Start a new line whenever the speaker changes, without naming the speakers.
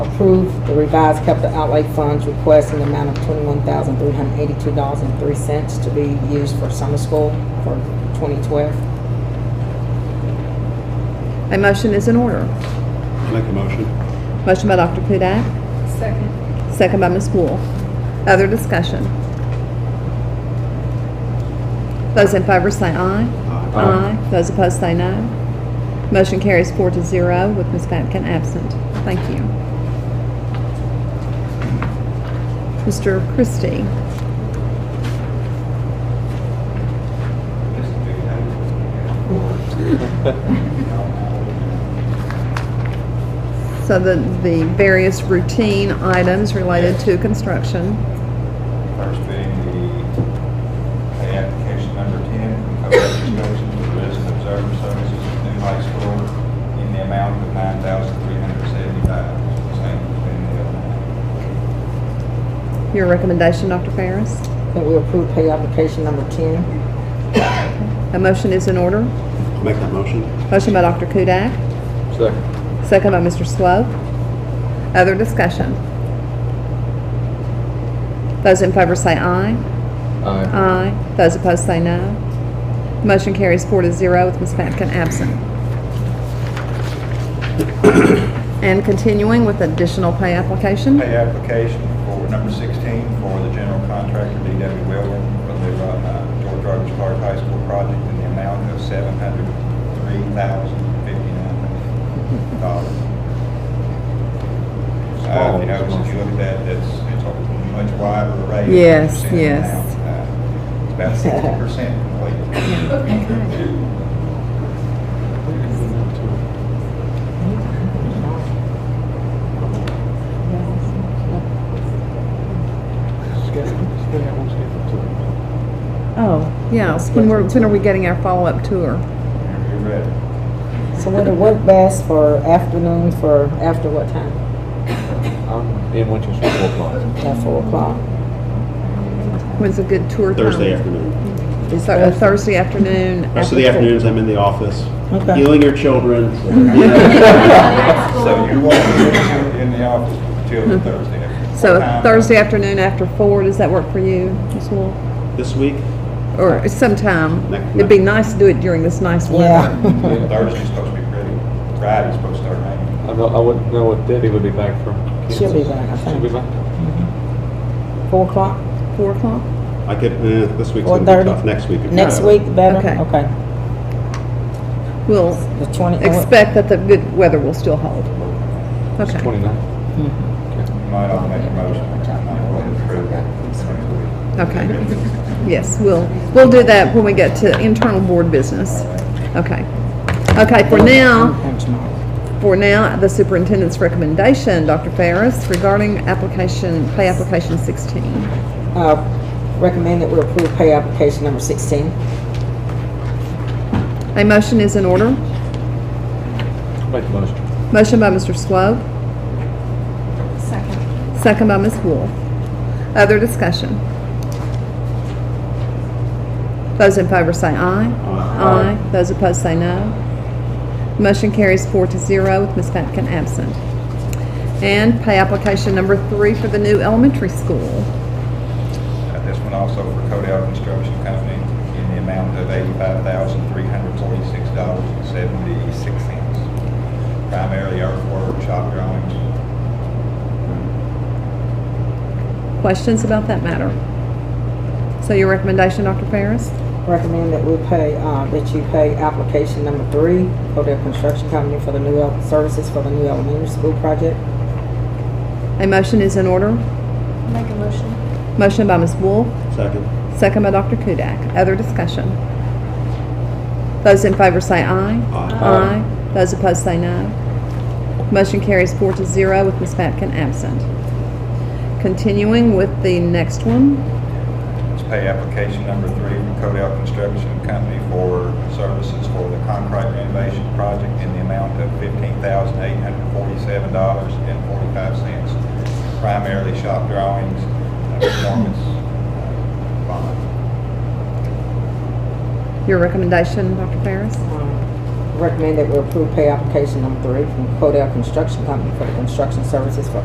approve the revised capital outlay funds request in the amount of twenty-one thousand, three hundred eighty-two dollars and three cents to be used for summer school for twenty-twelve.
A motion is in order.
Make a motion.
Motion by Dr. Kudak,
Second.
second by Ms. Wool. Other discussion? Those in favor say aye.
Aye.
Those opposed say no. Motion carries four to zero with Ms. Patkin absent. Thank you. Mr. Christie, so the, the various routine items related to construction.
First being the the application number 10, cover education for resident observer services at new high school in the amount of 9375 Same as been the other night.
Your recommendation, Dr. Ferris?
That we approve pay application number ten.
A motion is in order.
I'll Make that motion.
Uh,
Motion by Dr. Kudak,
Second.
Second by Mr. Swope. Other discussion? Those in favor say aye.
Aye.
Aye. Those opposed say no. Motion carries four to zero with Ms. Patkin absent. And continuing with additional pay application,
Pay application for number 16 for the general contractor DW Weldon for the uh, George Rogers Clark High School project in the amount of $703,059. Uh, if you notice, if you look at that, that's, it's a much wider array. of
Yes,
percent now.
yes.
Uh, It's about sixty percent complete.
oh, yes, when we're, when are we getting our follow-up tour?
You're ready.
So would it work best for afternoon for, after what time?
I'm in Winchester four o'clock.
At four o'clock?
When's a good tour time?
Thursday afternoon.
This
So, uh, Thursday afternoon?
Rest of the
after-
afternoons, I'm in the office,
Okay.
healing your children.
So you won't be in the office until Thursday.
Mm-hmm. So
What time?
Thursday afternoon after four, does that work for you, Ms. Wool?
This week,
Or sometime.
Next-
It'd be nice to do it during this nice weather.
Yeah.
Thursday's supposed to be pretty, Friday's supposed to start raining.
I know, I wouldn't know what Debbie would be back from. Kansas.
She'll be back, I think.
She'll be back.
Four o'clock?
Four o'clock?
I could, eh, this week's
Or
gonna be
thirty?
tough, next week. would be
Next
better.
week better?
Okay.
Okay.
We'll
The twenty. and what-
expect that the good weather will still hold. Okay,
Twenty-nine.
You might all make a motion. I might want to approve it.
okay. Yes, we'll, we'll do that when we get to internal board business. Okay. Okay, for now,
And tomorrow.
for now, the superintendent's recommendation, Dr. Ferris, regarding application, pay application 16.
Uh, Recommend that we approve pay application number 16.
A motion is in order.
Make the motion.
Motion by Mr. Swope.
Second.
Second by Ms. Wool. Other discussion? Those in favor say aye.
Aye.
Those opposed say no. Motion carries four to zero with Ms. Patkin absent. And pay application number three for the new elementary school.
Uh, This one also for Codell Construction Company in the amount of eighty-five thousand, three hundred forty-six dollars and seventy-six cents. Primarily earthwork, shop drawings.
Questions about that matter? So your recommendation, Dr. Ferris?
Recommend that we pay, uh, that you pay application number three, Codell Construction Company for the new el- services for the new elementary school project.
A motion is in order.
Make a motion.
Motion by Ms. Wool,
Second.
second by Dr. Kudak. Other discussion? Those in favor say aye.
Aye.
Aye. Those opposed say no. Motion carries four to zero with Ms. Patkin absent. Continuing with the next one,
It's pay application number three from Codell Construction Company for services for the concrete renovation project in the amount of fifteen thousand, eight hundred forty-seven dollars and forty-five cents. Primarily shop drawings, uh, performance uh, bond.
your recommendation, Dr. Ferris?
Um, Recommend that we approve pay application number three from Codell Construction Company for the construction services for